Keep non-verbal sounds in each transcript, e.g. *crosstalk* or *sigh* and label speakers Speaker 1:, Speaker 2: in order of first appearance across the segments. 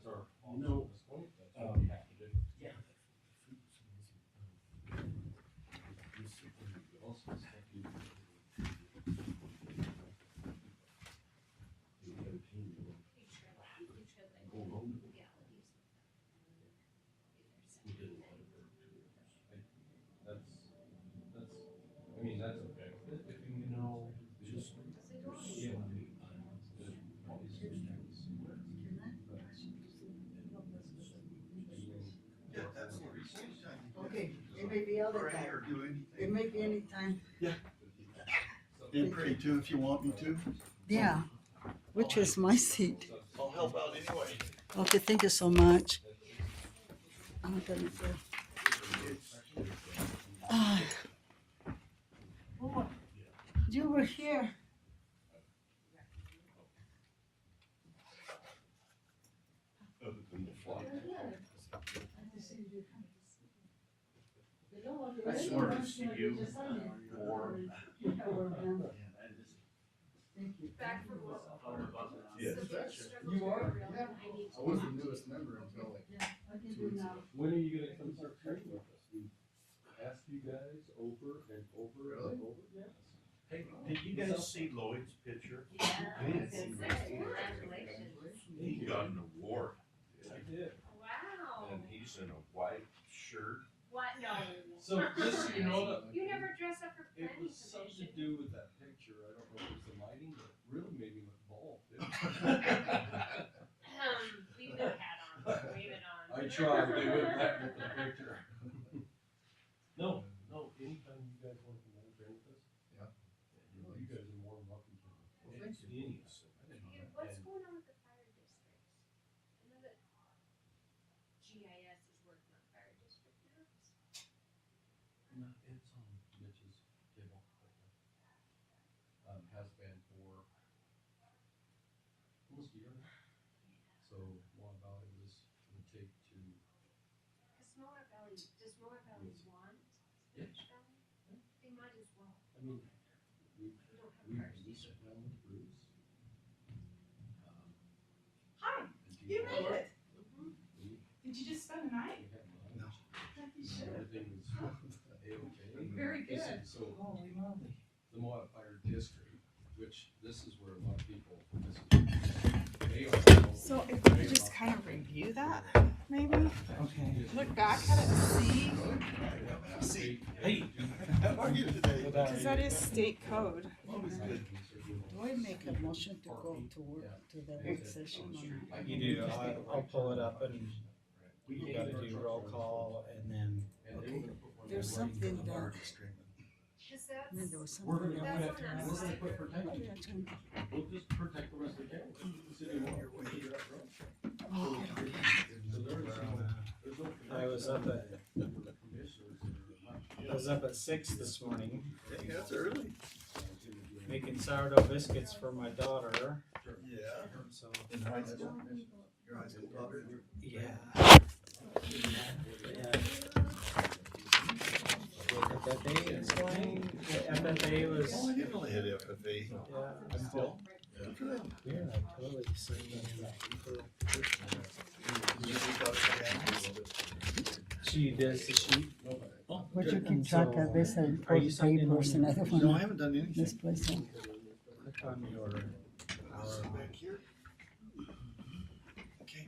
Speaker 1: start on
Speaker 2: Oh,
Speaker 3: You know,
Speaker 1: this week, that's what we have to do.
Speaker 3: Yeah.
Speaker 1: That's, that's, I mean, that's okay. If if you know, just. Yeah.
Speaker 2: Yeah, that's the reason.
Speaker 4: Okay, it may be other
Speaker 2: Pray
Speaker 4: time,
Speaker 2: or do
Speaker 4: it
Speaker 2: anything.
Speaker 4: may be any time,
Speaker 2: And pray too if you want me to.
Speaker 4: yeah, which is my seat.
Speaker 2: I'll help out anyway.
Speaker 4: Okay, thank you so much. I'm gonna go. Ah. Oh, You were here.
Speaker 1: Other than the fly.
Speaker 2: I swear to see you or.
Speaker 5: Back for what?
Speaker 1: Yes.
Speaker 5: The biggest struggle
Speaker 3: You are?
Speaker 5: I
Speaker 3: Yeah.
Speaker 5: need to-
Speaker 3: was the newest member until like.
Speaker 1: When are you gonna come start training with us? We asked you guys over and over and over. Yes.
Speaker 2: Hey, did you guys see Lloyd's picture?
Speaker 5: Yeah.
Speaker 2: Yes.
Speaker 5: Congratulations.
Speaker 2: He got an award.
Speaker 1: I did.
Speaker 2: And
Speaker 5: Wow.
Speaker 2: he's in a white shirt.
Speaker 5: What? No.
Speaker 1: So just, so you know, that
Speaker 5: You never dress up for
Speaker 1: it
Speaker 5: planning
Speaker 1: was something to
Speaker 5: commission.
Speaker 1: do with that picture. I don't know if it was the lighting, but it really made me look bald. *laughs* didn't
Speaker 5: Um, leave the hat on, wave it on.
Speaker 1: I tried, they wouldn't let me with the picture. No, no, anytime you guys want to come over and train with us.
Speaker 3: Yeah.
Speaker 1: You know, you guys are more than welcome to.
Speaker 3: Well, thank you.
Speaker 1: Any of us.
Speaker 5: Yeah, What's going on with the fire districts? I know that GIS is working on fire district maps.
Speaker 1: No, it's on Mitch's table right now. Um, has been for almost a year now. So Mon Valley was gonna take to,
Speaker 5: Cause Smaller Valley, does Smaller Valley want Spanish Valley? They might as well.
Speaker 1: I mean, we,
Speaker 5: We don't have
Speaker 1: we,
Speaker 5: fire
Speaker 1: we
Speaker 5: districts.
Speaker 1: sat down with Bruce. um,
Speaker 6: Hi,
Speaker 1: and
Speaker 6: you
Speaker 1: people-
Speaker 6: made it.
Speaker 1: We
Speaker 6: Did you just spend the night?
Speaker 1: we had
Speaker 2: No.
Speaker 1: lunch. and Everything was *laughs* A-okay.
Speaker 6: Very
Speaker 1: This
Speaker 6: good.
Speaker 1: is- So the modifier district, which this is where a lot of people, this is- they are.
Speaker 6: So if we could just kind of review that, maybe?
Speaker 1: Okay.
Speaker 6: Look back at it and see,
Speaker 2: See,
Speaker 1: Hey.
Speaker 2: how are you today?
Speaker 6: because that is state code.
Speaker 4: Do I make a motion to go to work, to the work session or not?
Speaker 7: You do, I'll, I'll pull it up and we gotta do roll call and then,
Speaker 4: There's something that,
Speaker 5: Cause that's.
Speaker 4: and then there was
Speaker 1: We're
Speaker 4: something
Speaker 1: gonna,
Speaker 4: else.
Speaker 1: we're gonna, we're gonna put protection,
Speaker 4: Yeah, it's gonna-
Speaker 1: we'll just protect the rest of the county. It's the city wall. Figure out roads.
Speaker 4: Oh,
Speaker 1: So there is no- there's no
Speaker 7: I was up at,
Speaker 1: commissioners that are not-
Speaker 7: I was up at six this morning
Speaker 2: Hey, that's early.
Speaker 7: making sourdough biscuits for my daughter,
Speaker 2: Yeah.
Speaker 7: so.
Speaker 2: In high school? Your high school daughter?
Speaker 7: Yeah. FFA is playing, Yeah, FFA
Speaker 2: Oh, I
Speaker 7: was,
Speaker 2: didn't really hit FFA.
Speaker 7: yeah, I'm still,
Speaker 2: Good for them.
Speaker 7: yeah, totally singing.
Speaker 2: You just gotta stay active.
Speaker 7: She does the sheet.
Speaker 4: But you keep track of this and
Speaker 7: Are
Speaker 4: put
Speaker 7: you signed in on
Speaker 4: papers and
Speaker 7: your-
Speaker 4: other
Speaker 2: No, I
Speaker 4: one,
Speaker 2: haven't done anything.
Speaker 4: this *laughs* place.
Speaker 7: Click on your,
Speaker 2: This is back here. Okay.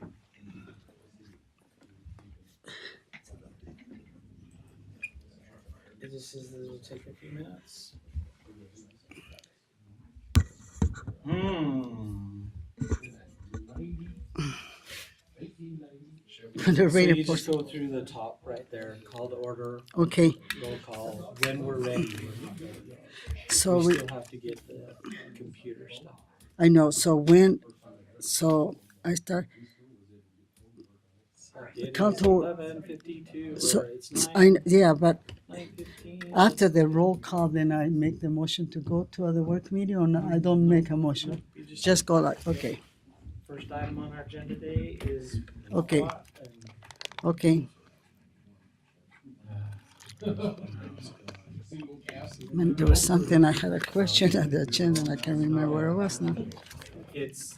Speaker 7: this is, this will take a few minutes.
Speaker 4: The
Speaker 7: So you
Speaker 4: rated
Speaker 7: just
Speaker 4: person,
Speaker 7: go through the top right there, call to order,
Speaker 4: okay,
Speaker 7: roll call, when we're ready.
Speaker 4: so
Speaker 7: We
Speaker 4: we,
Speaker 7: still have to get the computer stuff.
Speaker 4: I know, so when, so I start, Come to-
Speaker 7: Eleven fifty-two,
Speaker 4: So,
Speaker 7: or it's
Speaker 4: I,
Speaker 7: nine,
Speaker 4: yeah, but
Speaker 7: nine fifteen.
Speaker 4: after the roll call, then I make the motion to go to other work meeting or no, I don't make a motion,
Speaker 7: You just-
Speaker 4: just go like, okay,
Speaker 7: First item on our agenda today is.
Speaker 4: Okay.
Speaker 7: plot and
Speaker 4: okay.
Speaker 1: Single cast.
Speaker 4: And there was something, I had a question at the agenda and I can't remember where it was now.
Speaker 7: It's,